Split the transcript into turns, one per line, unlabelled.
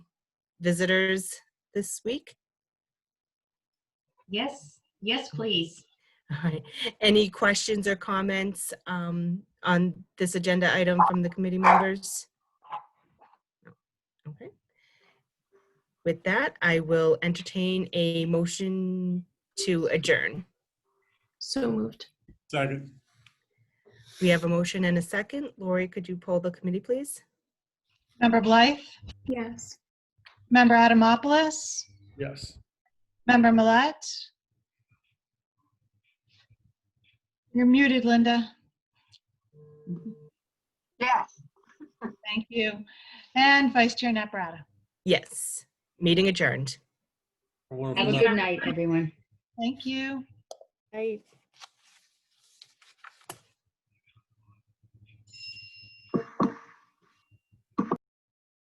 visitors this week?
Yes, yes, please.
All right. Any questions or comments um, on this agenda item from the committee members? No. Okay. With that, I will entertain a motion to adjourn.
So moved.
Second.
We have a motion and a second. Lori, could you poll the committee, please?
Member Blythe?
Yes.
Member Adamopoulos?
Yes.
Member Millet? You're muted, Linda.
Yes.
Thank you. And Vice Chair Naprata.
Yes. Meeting adjourned.
A wonderful
Have a
night.
good night, everyone.
Thank you.
Right.